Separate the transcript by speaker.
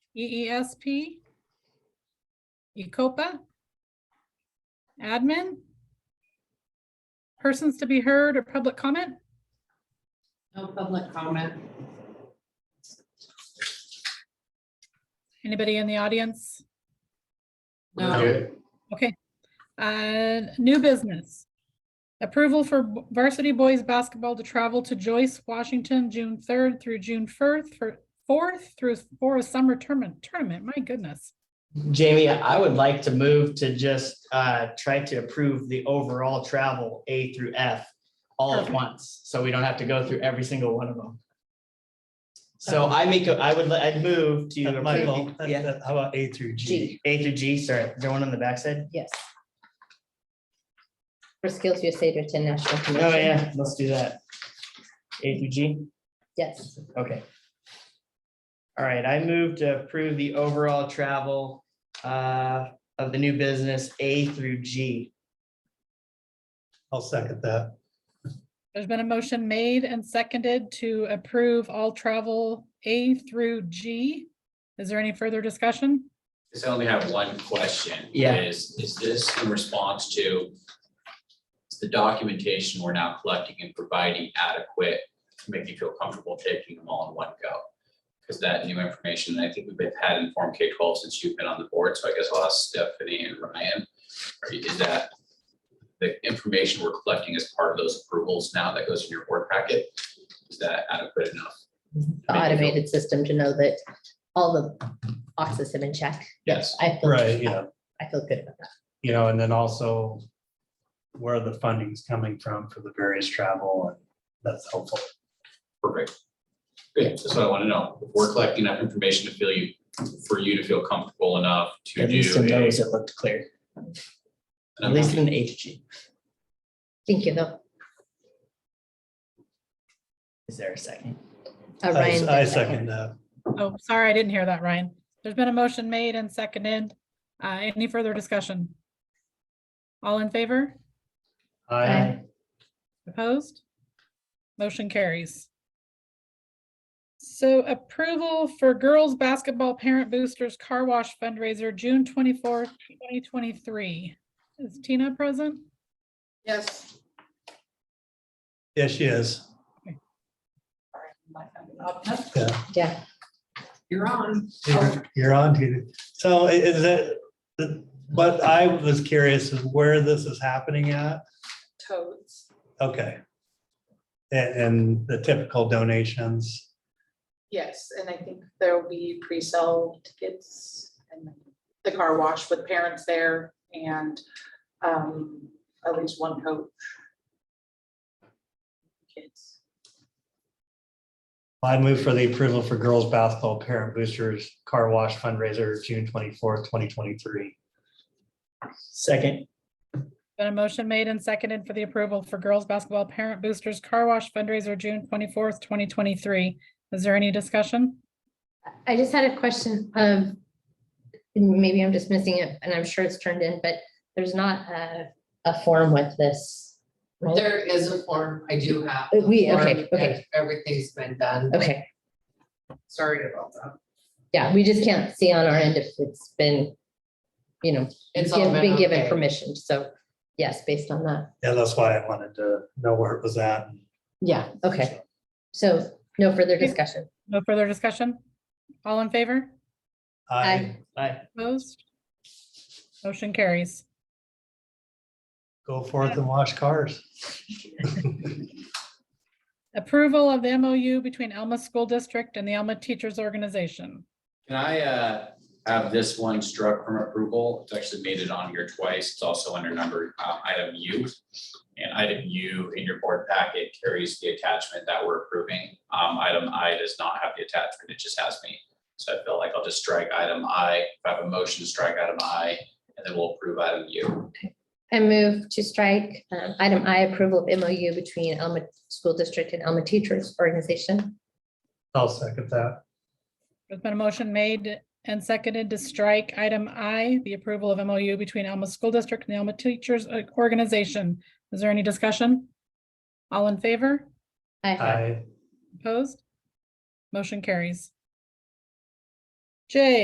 Speaker 1: E EESP, E ECOPA, admin, persons to be heard or public comment?
Speaker 2: No public comment.
Speaker 1: Anybody in the audience?
Speaker 2: No,
Speaker 3: Okay.
Speaker 1: Okay. Uh, New business. Approval for b- varsity boys basketball to travel to Joyce, Washington, June 3rd through June 4th for 4th through for a summer tournament. Tournament, my goodness.
Speaker 4: Jamie, I would like to move to just uh, try to approve the overall travel A through F all at
Speaker 1: Perfect.
Speaker 4: once, so we don't have to go through every single one of them. So I make, a- I would, li- I'd move to
Speaker 5: Uh, Michael,
Speaker 4: approve,
Speaker 5: that-
Speaker 4: yeah,
Speaker 5: that- how about A through G?
Speaker 6: G.
Speaker 4: A through G, sorry, is there one on the backside?
Speaker 6: Yes. For Skills USA to National
Speaker 4: Oh,
Speaker 6: Convention.
Speaker 4: yeah, let's do that. A through G?
Speaker 6: Yes,
Speaker 4: Okay. All right, I move to approve the overall travel uh, of the new business A through G.
Speaker 5: I'll second that.
Speaker 1: There's been a motion made and seconded to approve all travel A through G. Is there any further discussion?
Speaker 7: Just only have one question.
Speaker 4: Yeah.
Speaker 7: Is, is this in response to is the documentation we're now collecting and providing adequate to make you feel comfortable taking them all in one go? Because that new information, I think we've had in Form K twelve since you've been on the board, so I guess I'll ask Stephanie and Ryan. Are you- Is that the information we're collecting as part of those approvals now that goes in your board packet? Is that adequate enough?
Speaker 6: the automated system to know that all the boxes have been checked.
Speaker 7: Yes.
Speaker 6: I feel.
Speaker 5: Right, yeah,
Speaker 6: I feel good about that.
Speaker 5: you know, and then also where the funding's coming from for the various travel, and that's helpful.
Speaker 7: Perfect. Good, that's what I want to know. If We're collecting enough information to feel you, for you to feel comfortable enough to
Speaker 4: At least in
Speaker 7: do. a-
Speaker 4: those it looked clear, at
Speaker 7: an
Speaker 4: least
Speaker 7: amount.
Speaker 4: in A to G.
Speaker 6: Thank you, though.
Speaker 4: Is there a second?
Speaker 6: Uh, Ryan
Speaker 5: I I
Speaker 6: did
Speaker 5: second that.
Speaker 1: Oh, sorry, I didn't hear that, Ryan. There's been a motion made and seconded. Uh, any further discussion? All in favor?
Speaker 5: I,
Speaker 1: Opposed? Motion carries. So approval for girls' basketball parent boosters car wash fundraiser, June twenty-fourth, twenty twenty-three. Is Tina present?
Speaker 2: yes.
Speaker 5: yeah, she is. Yeah,
Speaker 6: Yeah,
Speaker 2: You're on.
Speaker 5: you're- you're on to, so i- is it, the- what I was curious is where this is happening at?
Speaker 2: Toads.
Speaker 5: Okay. And, and the typical donations.
Speaker 2: Yes, and I think there'll be pre-sale tickets and the car wash with parents there and um, at least one coach. Kids.
Speaker 5: I move for the approval for girls' basketball parent boosters car wash fundraiser, June twenty-fourth, twenty twenty-three.
Speaker 4: Second,
Speaker 1: Been a motion made and seconded for the approval for girls' basketball parent boosters car wash fundraiser, June twenty-fourth, twenty twenty-three. Is there any discussion?
Speaker 6: I just had a question of, maybe I'm just missing it, and I'm sure it's turned in, but there's not a, a form with this. right?
Speaker 8: There is a form, I do have.
Speaker 6: Uh,
Speaker 8: the
Speaker 6: we- okay,
Speaker 8: form,
Speaker 6: okay.
Speaker 8: and Everything's been done.
Speaker 6: Okay,
Speaker 8: Sorry about that.
Speaker 6: yeah, we just can't see on our end if it's been, you know,
Speaker 8: It's all
Speaker 6: been given
Speaker 8: okay.
Speaker 6: permission, so, yes, based on that.
Speaker 5: Yeah, that's why I wanted to know where it was at.
Speaker 6: Yeah, okay. So no further discussion.
Speaker 1: No further discussion? All in favor?
Speaker 5: I
Speaker 4: aye,
Speaker 1: Opposed? Motion carries.
Speaker 5: go forth and wash cars.
Speaker 1: Approval of the MOU between Alma School District and the Alma Teachers Organization.
Speaker 7: Can I uh, have this one struck from approval? It's actually made it on here twice. It's also under number uh, item U. And item U in your board packet carries the attachment that we're approving. Um, Item I does not have the attachment. It just has me. So I feel like I'll just strike item I, if I have a motion to strike item I, and then we'll approve item U.
Speaker 6: I move to strike um, item I, approval of MOU between Elma School District and Elma Teachers Organization.
Speaker 5: I'll second that.
Speaker 1: There's been a motion made and seconded to strike item I, the approval of MOU between Alma School District and the Alma Teachers uh, Organization. Is there any discussion? All in favor?
Speaker 5: I
Speaker 1: Opposed? Motion carries. J,